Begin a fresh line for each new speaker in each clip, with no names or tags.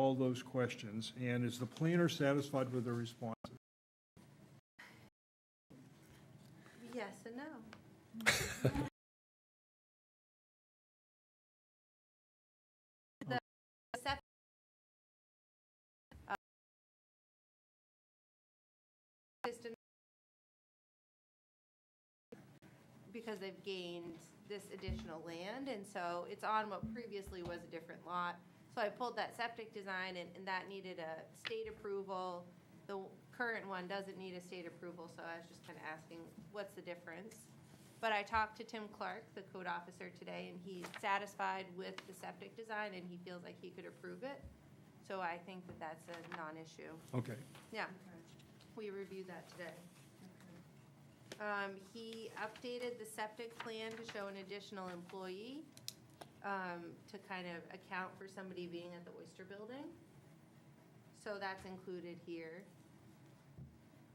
all those questions? And is the planner satisfied with the response?
Yes and no. The septic, uh, system- Because they've gained this additional land, and so it's on what previously was a different lot. So I pulled that septic design, and, and that needed a state approval. The w- current one doesn't need a state approval, so I was just kind of asking, what's the difference? But I talked to Tim Clark, the code officer, today, and he's satisfied with the septic design, and he feels like he could approve it. So I think that that's a non-issue.
Okay,
Yeah, we reviewed that today. Um, he updated the septic plan to show an additional employee, um, to kind of account for somebody being at the Oyster Building. So that's included here.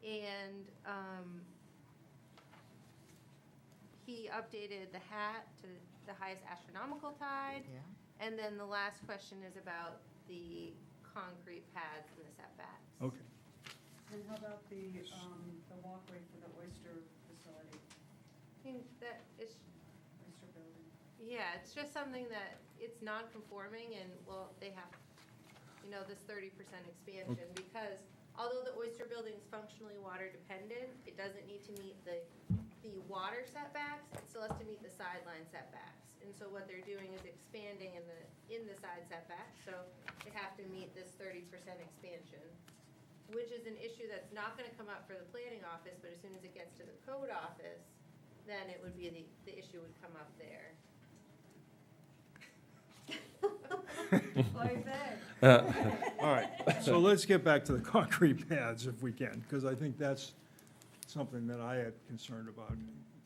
And, um, he updated the hat to the highest astronomical tide. And then the last question is about the concrete pads and the setbacks.
okay.
And how about the, um, the walkway for the oyster facility,
think that it's,
oyster building?
yeah, it's just something that, it's non-conforming and, well, they have, you know, this thirty percent expansion, because although the oyster building is functionally water dependent, it doesn't need to meet the, the water setbacks, it still has to meet the sideline setbacks. And so what they're doing is expanding in the, in the side setback, so they have to meet this thirty percent expansion, which is an issue that's not gonna come up for the planning office, but as soon as it gets to the code office, then it would be the, the issue would come up there.
Like that.
All right, so let's get back to the concrete pads if we can, because I think that's something that I had concerned about.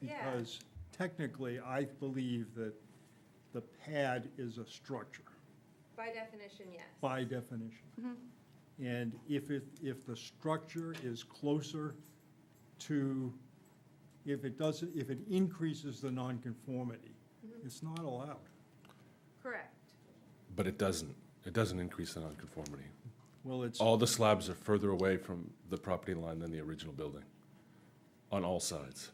Yeah.
Because technically, I believe that the pad is a structure
By definition, yes.
by definition. And if it, if the structure is closer to, if it doesn't, if it increases the nonconformity, it's not allowed.
Correct.
But it doesn't. It doesn't increase the nonconformity.
Well, it's,
All the slabs are further away from the property line than the original building, on all sides.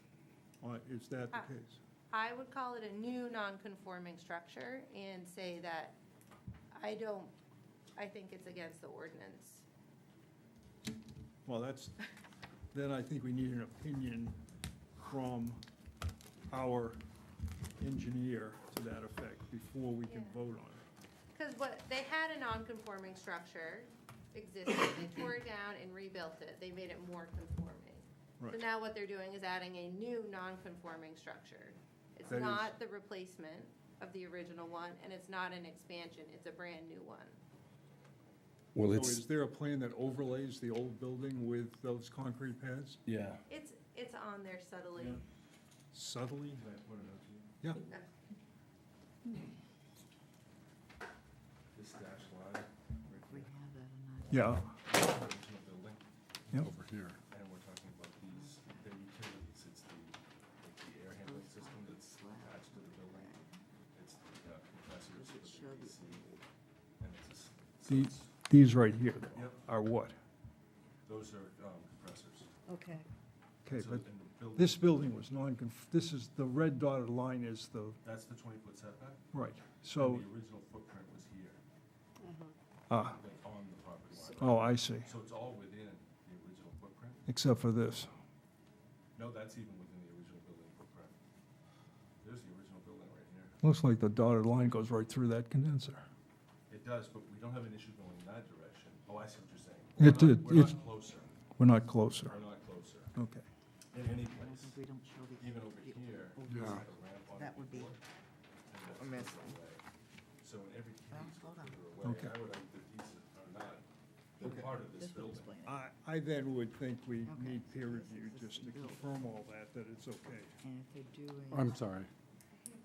uh, is that
Ah.
the case?
I would call it a new non-conforming structure and say that I don't, I think it's against the ordinance.
Well, that's, then I think we need an opinion from our engineer to that effect before we can
Yeah.
vote on it.
Because what, they had a non-conforming structure existing, they tore it down and rebuilt it, they made it more conforming. So
Right.
now what they're doing is adding a new non-conforming structure. It's
That is-
not the replacement of the original one, and it's not an expansion, it's a brand-new one.
Well,
So is there a plan that overlays the old building with those concrete pads
yeah.
It's, it's on there subtly.
Yeah. subtly? Yeah,
This dash line
We have that or not?
yeah,
original building,
yeah.
over here, and we're talking about these, the utilities. It's the, like the air handling system that's attached to the building. It's the uh, compressors for
Show
the
the-
AC, and it's a s- so
The-
it's-
These right here though,
Yep.
are what?
Those are um, compressors.
Okay,
Okay,
So
but
in the building-
this building was non-conf, this is, the red dotted line is the,
That's the twenty-foot setback. and
right, so,
The original footprint was here,
ah,
like on the property line.
oh, I see,
So it's all within the original footprint?
except for this.
No, that's even within the original building footprint. There's the original building right here.
Looks like the dotted line goes right through that condenser.
It does, but we don't have an issue going in that direction. Oh, I see what you're saying.
It
We're not-
did.
We're
It-
not closer.
We're not closer,
We're not closer
okay.
in any
I don't
place.
think we don't show the.
Even over
the
here,
old
there's
one.
like a ramp on
Oh, That
the
would be-
board, and that's
a mess.
further away. So in every case,
Well,
we're
hold on.
further away. And
Okay.
I would argue that these are not, they're part of this
This would
building.
explain it.
I, I then would think we
Okay.
need peer review just to confirm all that, that it's okay.
And if they're doing.
I'm sorry.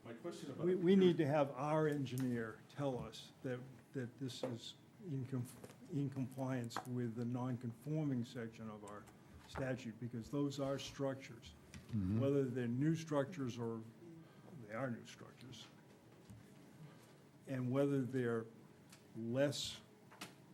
My question about.
We, we need to have our engineer tell us that, that this is in com, in compliance with the non-conforming section of our statute, because those are structures. Whether they're new structures or, they are new structures. And whether they're less